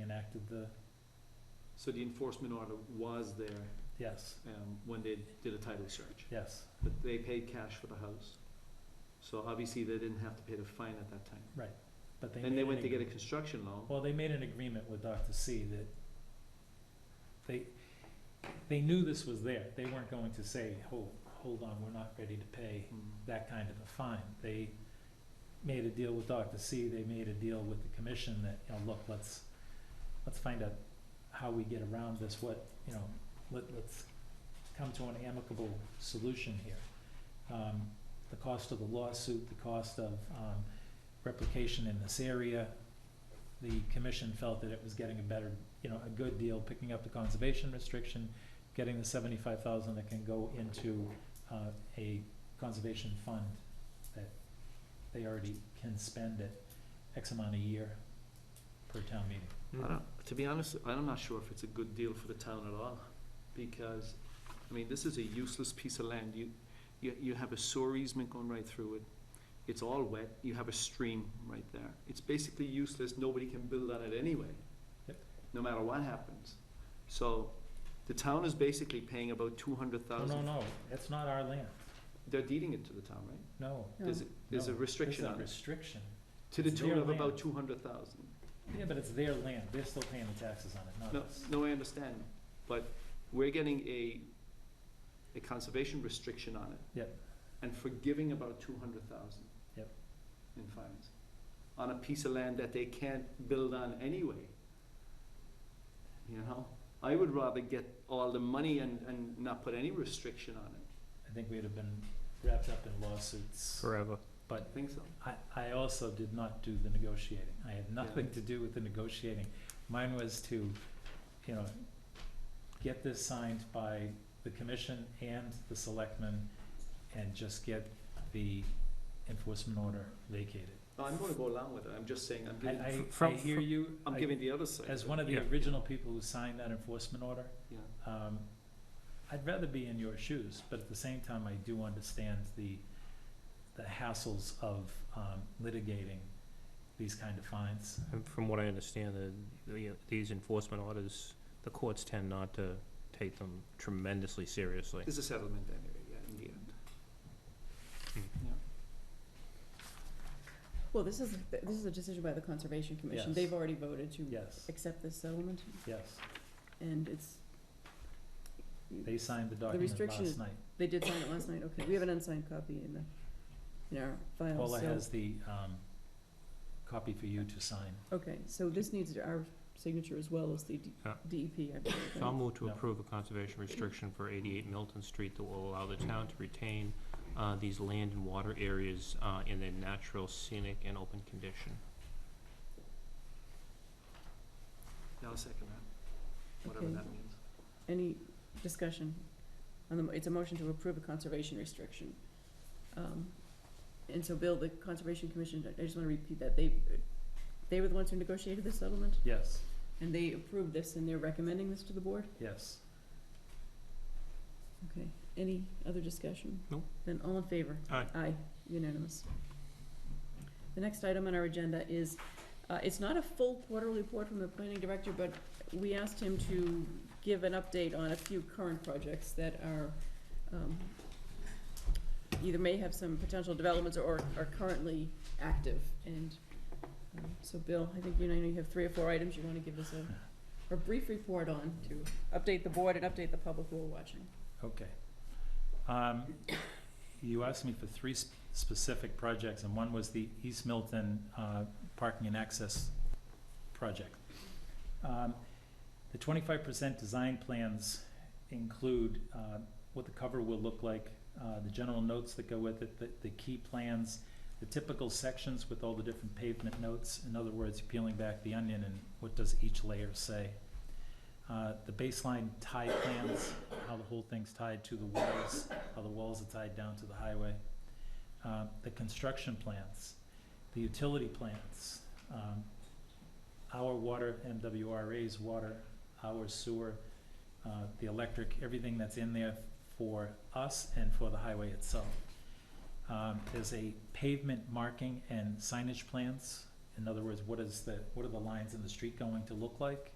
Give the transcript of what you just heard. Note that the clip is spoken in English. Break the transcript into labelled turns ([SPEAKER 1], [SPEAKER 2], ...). [SPEAKER 1] impacted the,
[SPEAKER 2] So the enforcement order was there
[SPEAKER 1] yes,
[SPEAKER 2] um, when they did a title search,
[SPEAKER 1] yes,
[SPEAKER 2] but they paid cash for the house. So obviously, they didn't have to pay the fine at that time.
[SPEAKER 1] but they.
[SPEAKER 2] And
[SPEAKER 1] made
[SPEAKER 2] they
[SPEAKER 1] an
[SPEAKER 2] went to get a
[SPEAKER 1] agree-
[SPEAKER 2] construction loan.
[SPEAKER 1] Well, they made an agreement with Dr. C that they, they knew this was there. They weren't going to say, hold, hold on, we're not ready to pay
[SPEAKER 2] Mm.
[SPEAKER 1] that kind of a fine. They made a deal with Dr. C, they made a deal with the commission that, you know, look, let's, let's find out how we get around this, what, you know, let, let's come to an amicable solution here. Um, the cost of the lawsuit, the cost of, um, replication in this area. The commission felt that it was getting a better, you know, a good deal, picking up the conservation restriction, getting the seventy-five thousand that can go into, uh, a conservation fund that they already can spend at X amount a year per town meeting.
[SPEAKER 2] I don't, to be honest, I'm not sure if it's a good deal for the town at all, because, I mean, this is a useless piece of land. You, you, you have a sewer easement going right through it. It's all wet. You have a stream right there. It's basically useless. Nobody can build on it anyway.
[SPEAKER 1] Yep.
[SPEAKER 2] No matter what happens. So the town is basically paying about two hundred
[SPEAKER 1] No, no,
[SPEAKER 2] thousand.
[SPEAKER 1] no, that's not our land,
[SPEAKER 2] They're deeding it to the town, right?
[SPEAKER 1] no.
[SPEAKER 2] There's, a- there's a
[SPEAKER 1] No,
[SPEAKER 2] restriction
[SPEAKER 1] There's a
[SPEAKER 2] on it,
[SPEAKER 1] restriction,
[SPEAKER 2] to the
[SPEAKER 1] it's their
[SPEAKER 2] tune of about
[SPEAKER 1] land.
[SPEAKER 2] two hundred thousand.
[SPEAKER 1] yeah, but it's their land, they're still paying the taxes on it,
[SPEAKER 2] No,
[SPEAKER 1] not us.
[SPEAKER 2] no, I understand, but we're getting a, a conservation restriction on it.
[SPEAKER 1] Yep.
[SPEAKER 2] And forgiving about two hundred thousand.
[SPEAKER 1] Yep.
[SPEAKER 2] In fines, on a piece of land that they can't build on anyway. You know, I would rather get all the money and, and not put any restriction on it,
[SPEAKER 1] I think we'd have been wrapped up in lawsuits.
[SPEAKER 3] Forever.
[SPEAKER 1] But
[SPEAKER 2] I think so.
[SPEAKER 1] I, I also did not do the negotiating. I had nothing
[SPEAKER 2] Yeah.
[SPEAKER 1] to do with the negotiating. Mine was to, you know, get this signed by the commission and the selectmen and just get the enforcement order vacated.
[SPEAKER 2] No, I'm gonna go along with it, I'm just saying, I'm
[SPEAKER 1] I,
[SPEAKER 2] giving,
[SPEAKER 1] I, I
[SPEAKER 3] From-
[SPEAKER 1] hear you.
[SPEAKER 2] I'm
[SPEAKER 1] I-
[SPEAKER 2] giving the other side.
[SPEAKER 1] As
[SPEAKER 2] of it.
[SPEAKER 1] one of the
[SPEAKER 3] Yeah.
[SPEAKER 1] original people who signed that enforcement order,
[SPEAKER 2] Yeah,
[SPEAKER 1] um, I'd rather be in your shoes, but at the same time, I do understand the, the hassles of, um, litigating these kind of fines.
[SPEAKER 3] And from what I understand, the- the, these enforcement orders, the courts tend not to take them tremendously seriously.
[SPEAKER 2] there's a settlement anyway, yeah, in the end.
[SPEAKER 4] Well, this is, this is a decision by the Conservation Commission.
[SPEAKER 1] Yes.
[SPEAKER 4] They've already voted to
[SPEAKER 1] Yes,
[SPEAKER 4] accept this settlement,
[SPEAKER 1] yes.
[SPEAKER 4] and it's,
[SPEAKER 1] They signed the document
[SPEAKER 4] restriction
[SPEAKER 1] last
[SPEAKER 4] is-
[SPEAKER 1] night.
[SPEAKER 4] they did sign it last night, okay. We have an unsigned copy in the, in our files,
[SPEAKER 1] Paula
[SPEAKER 4] so,
[SPEAKER 1] has the, um, copy for you to sign.
[SPEAKER 4] okay, so this needs our signature as well as the D-
[SPEAKER 3] Yeah.
[SPEAKER 4] DEP, I believe.
[SPEAKER 3] So I'll
[SPEAKER 4] right?
[SPEAKER 3] move to
[SPEAKER 1] No.
[SPEAKER 3] approve a conservation restriction for eighty-eight Milton Street that will allow the town to retain, uh, these land and water areas, uh, in their natural scenic and open condition.
[SPEAKER 2] Yeah, I'll second that, whatever
[SPEAKER 4] Okay.
[SPEAKER 2] that means.
[SPEAKER 4] Any discussion? On the, mo- it's a motion to approve a conservation restriction. Um, And so, Bill, the Conservation Commission, I- I just wanna repeat that, they, they were the ones who negotiated this settlement,
[SPEAKER 1] Yes,
[SPEAKER 4] and they approved this, and they're recommending this to the board?
[SPEAKER 1] yes.
[SPEAKER 4] Okay, any other discussion?
[SPEAKER 3] Nope.
[SPEAKER 4] Then all in favor?
[SPEAKER 3] Aye.
[SPEAKER 4] Aye, unanimous. The next item on our agenda is, uh, it's not a full quarterly report from the planning director, but we asked him to give an update on a few current projects that are, um, either may have some potential developments or are currently active, and, um, so Bill, I think you know, you have three or four items you wanna give us a, a brief report on to update the board and update the public who are watching.
[SPEAKER 1] Okay. Um, You asked me for three sp- specific projects, and one was the East Milton uh, Parking and Access Project. Um, The twenty-five percent design plans include uh, what the cover will look like, uh, the general notes that go with it, the, the key plans, the typical sections with all the different pavement notes, in other words, peeling back the onion and what does each layer say. Uh, The baseline tie plans, how the whole thing's tied to the walls, how the walls are tied down to the highway. Uh, The construction plans, the utility plans, um, our water, MWRA's water, our sewer, uh, the electric, everything that's in there for us and for the highway itself. Um, There's a pavement marking and signage plans, in other words, what is the, what are the lines in the street going to look like?